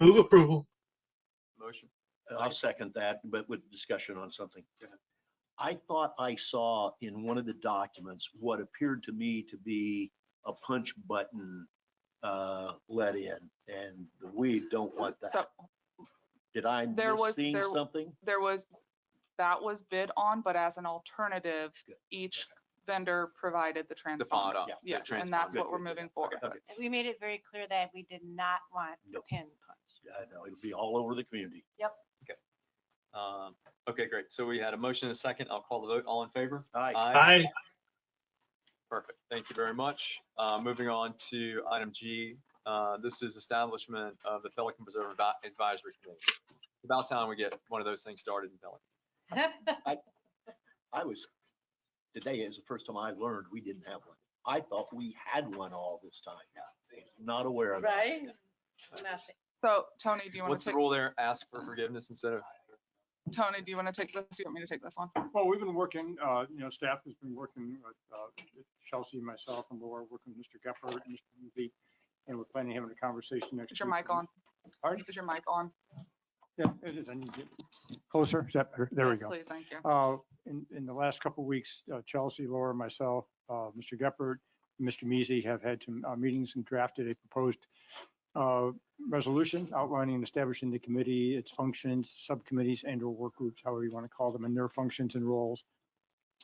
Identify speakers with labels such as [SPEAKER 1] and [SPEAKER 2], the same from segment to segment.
[SPEAKER 1] Move approval.
[SPEAKER 2] Motion.
[SPEAKER 3] I'll second that, but with discussion on something.
[SPEAKER 2] Go ahead.
[SPEAKER 3] I thought I saw in one of the documents what appeared to me to be a punch button uh, let in, and we don't want
[SPEAKER 4] So
[SPEAKER 3] that. Did I
[SPEAKER 4] there was-
[SPEAKER 3] missing
[SPEAKER 4] there-
[SPEAKER 3] something?
[SPEAKER 4] there was, that was bid on, but as an alternative, each vendor provided the
[SPEAKER 2] The pod
[SPEAKER 4] transponder.
[SPEAKER 2] up.
[SPEAKER 3] Yeah.
[SPEAKER 2] the
[SPEAKER 4] Yes, and
[SPEAKER 2] transponder.
[SPEAKER 4] that's what
[SPEAKER 3] Good,
[SPEAKER 4] we're
[SPEAKER 3] good, good.
[SPEAKER 4] moving forward.
[SPEAKER 3] Okay.
[SPEAKER 5] And we made it very clear that we did not want the
[SPEAKER 3] Nope.
[SPEAKER 5] pin punch.
[SPEAKER 3] I know, it'll be all over the community.
[SPEAKER 2] Um, Okay, great. So we had a motion and a second. I'll call the vote. All in favor?
[SPEAKER 3] Aye.
[SPEAKER 4] Uh,
[SPEAKER 1] Aye.
[SPEAKER 2] Perfect. Thank you very much. Uh, Moving on to item G. uh, This is establishment of the Pelican Preserve Advi- Advisory Committee. It's About time we get one of those things started in Pelican.
[SPEAKER 3] I was, today is the first time I learned we didn't have one. I thought we had one all this time. Not aware of it.
[SPEAKER 5] Right? Nothing.
[SPEAKER 4] So Tony, do you want
[SPEAKER 2] What's
[SPEAKER 4] to
[SPEAKER 2] the
[SPEAKER 4] take,
[SPEAKER 2] rule there? Ask for forgiveness instead of,
[SPEAKER 4] Tony, do you want to take this? Do you want me to take this one?
[SPEAKER 6] Well, we've been working, uh, you know, staff has been working with uh, Chelsea, myself, and Laura, working with Mr. Gephardt, and Mr. Levy, and we're planning on having a conversation next week.
[SPEAKER 4] Is your mic on?
[SPEAKER 6] Pardon?
[SPEAKER 4] Is your mic on?
[SPEAKER 6] Yeah, it is. I need to get closer. Is that better? There we
[SPEAKER 4] Yes,
[SPEAKER 6] go.
[SPEAKER 4] Please, thank you.
[SPEAKER 6] Uh, In, in the last couple of weeks, uh, Chelsea, Laura, myself, uh, Mr. Gephardt, and Mr. Measy have had some uh, meetings and drafted a proposed uh, resolution outlining and establishing the committee, its functions, subcommittees and or work groups, however you want to call them, and their functions and roles,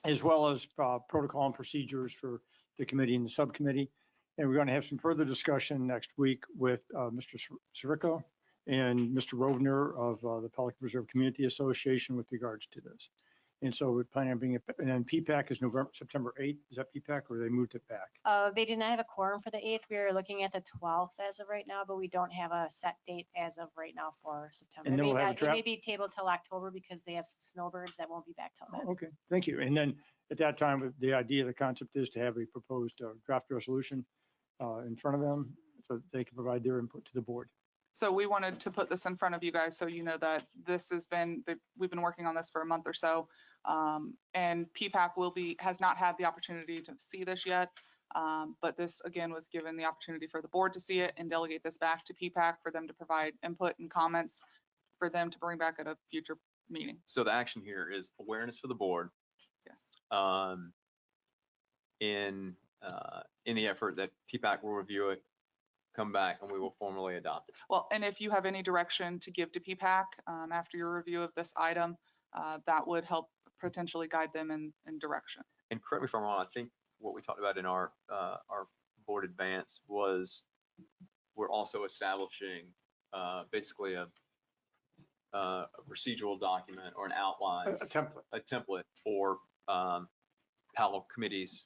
[SPEAKER 6] as well as uh, protocol and procedures for the committee and the subcommittee. And we're going to have some further discussion next week with uh, Mr. Sirico and Mr. Rovner of uh, the Pelican Reserve Community Association with regards to this. And so we're planning on being, a- and then PPAC is November, September 8th. Is that PPAC or they moved it back?
[SPEAKER 5] Uh, they did not have a quorum for the eighth. We are looking at the twelfth as of right now, but we don't have a set date as of right now for September.
[SPEAKER 6] And
[SPEAKER 5] It
[SPEAKER 6] then
[SPEAKER 5] may
[SPEAKER 6] we'll have a
[SPEAKER 5] not- It may
[SPEAKER 6] draft-
[SPEAKER 5] be tabled till October because they have some snowbirds that won't be back till then.
[SPEAKER 6] Oh, Okay, thank you. And then at that time, the idea, the concept is to have a proposed uh, draft resolution uh, in front of them so they can provide their input to the board.
[SPEAKER 4] So we wanted to put this in front of you guys so you know that this has been, that we've been working on this for a month or so. Um, And PPAP will be, has not had the opportunity to see this yet. um, But this, again, was given the opportunity for the board to see it and delegate this back to PPAC for them to provide input and comments for them to bring back at a future meeting.
[SPEAKER 2] so the action here is awareness for the board
[SPEAKER 4] Yes.
[SPEAKER 2] um, in, uh, in the effort that PPAC will review it, come back, and we will formally adopt it.
[SPEAKER 4] Well, and if you have any direction to give to PPAC um, after your review of this item, uh, that would help potentially guide them in, in direction.
[SPEAKER 2] And correct me if I'm wrong, I think what we talked about in our, uh, our board advance was we're also establishing, uh, basically a, uh, a procedural document or an
[SPEAKER 6] A
[SPEAKER 2] outline,
[SPEAKER 4] Uh,
[SPEAKER 6] a template.
[SPEAKER 2] a template for, um, how committees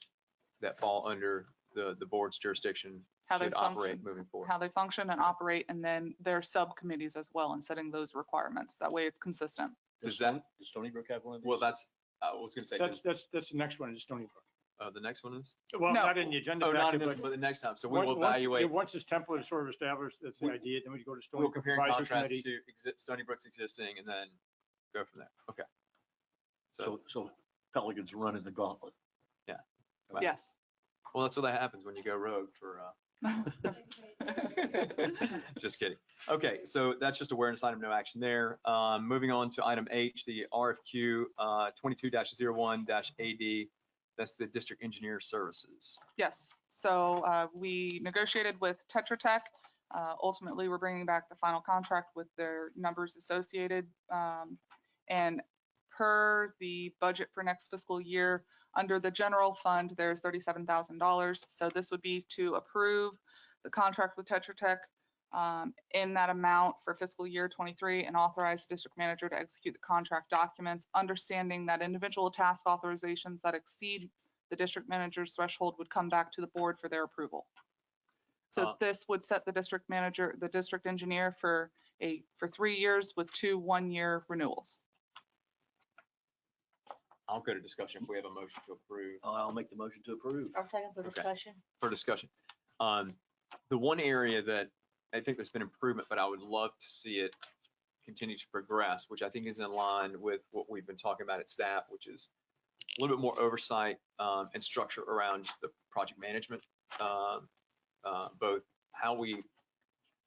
[SPEAKER 2] that fall under the, the board's jurisdiction
[SPEAKER 4] How they
[SPEAKER 2] should operate
[SPEAKER 4] function,
[SPEAKER 2] moving forward.
[SPEAKER 4] how they function and operate, and then their subcommittees as well, and setting those requirements. That way it's consistent.
[SPEAKER 2] Does that-
[SPEAKER 3] Does Stony Brook have one of these?
[SPEAKER 2] Well, that's, uh, I was gonna say,
[SPEAKER 6] That's,
[SPEAKER 2] does-
[SPEAKER 6] that's, that's the next one, is Stony Brook.
[SPEAKER 2] uh, the next one is?
[SPEAKER 6] Well,
[SPEAKER 4] No.
[SPEAKER 6] not in the agenda
[SPEAKER 2] Oh, not
[SPEAKER 6] packet,
[SPEAKER 2] in this,
[SPEAKER 6] but.
[SPEAKER 2] but the next time. So we
[SPEAKER 6] once-
[SPEAKER 2] will
[SPEAKER 6] once-
[SPEAKER 2] evaluate,
[SPEAKER 6] Once this template is sort of established, that's the
[SPEAKER 2] We-
[SPEAKER 6] idea, then we go to Stony
[SPEAKER 2] we'll
[SPEAKER 6] Brook
[SPEAKER 2] compare and
[SPEAKER 6] Advisory
[SPEAKER 2] contrast
[SPEAKER 6] Committee.
[SPEAKER 2] to exist, Stony Brook's existing and then go from there. Okay. So,
[SPEAKER 3] So, so Pelican's running the gauntlet.
[SPEAKER 2] Wow.
[SPEAKER 4] Yes.
[SPEAKER 2] well, that's what that happens when you go rogue for, uh, just kidding. Okay, so that's just awareness item, no action there. Um, moving on to item H, the RFQ, uh, twenty-two dash zero one dash AD. That's the district engineer services.
[SPEAKER 4] Yes, so uh, we negotiated with Tetra Tech. Uh, Ultimately, we're bringing back the final contract with their numbers associated. um, And per the budget for next fiscal year, under the general fund, there's $37,000. So this would be to approve the contract with Tetra Tech um, in that amount for fiscal year 23 and authorize the district manager to execute the contract documents, understanding that individual task authorizations that exceed the district manager's threshold would come back to the board for their approval.
[SPEAKER 2] Uh,
[SPEAKER 4] So this would set the district manager, the district engineer for a, for three years with two one-year renewals.
[SPEAKER 2] I'll go to discussion if we have a motion to approve.
[SPEAKER 3] I'll make the motion to approve.
[SPEAKER 5] I'll second the
[SPEAKER 2] Okay.
[SPEAKER 5] discussion.
[SPEAKER 2] for discussion. Um, the one area that I think there's been improvement, but I would love to see it continue to progress, which I think is in line with what we've been talking about at staff, which is a little bit more oversight, um, and structure around just the project management, um, uh, both how we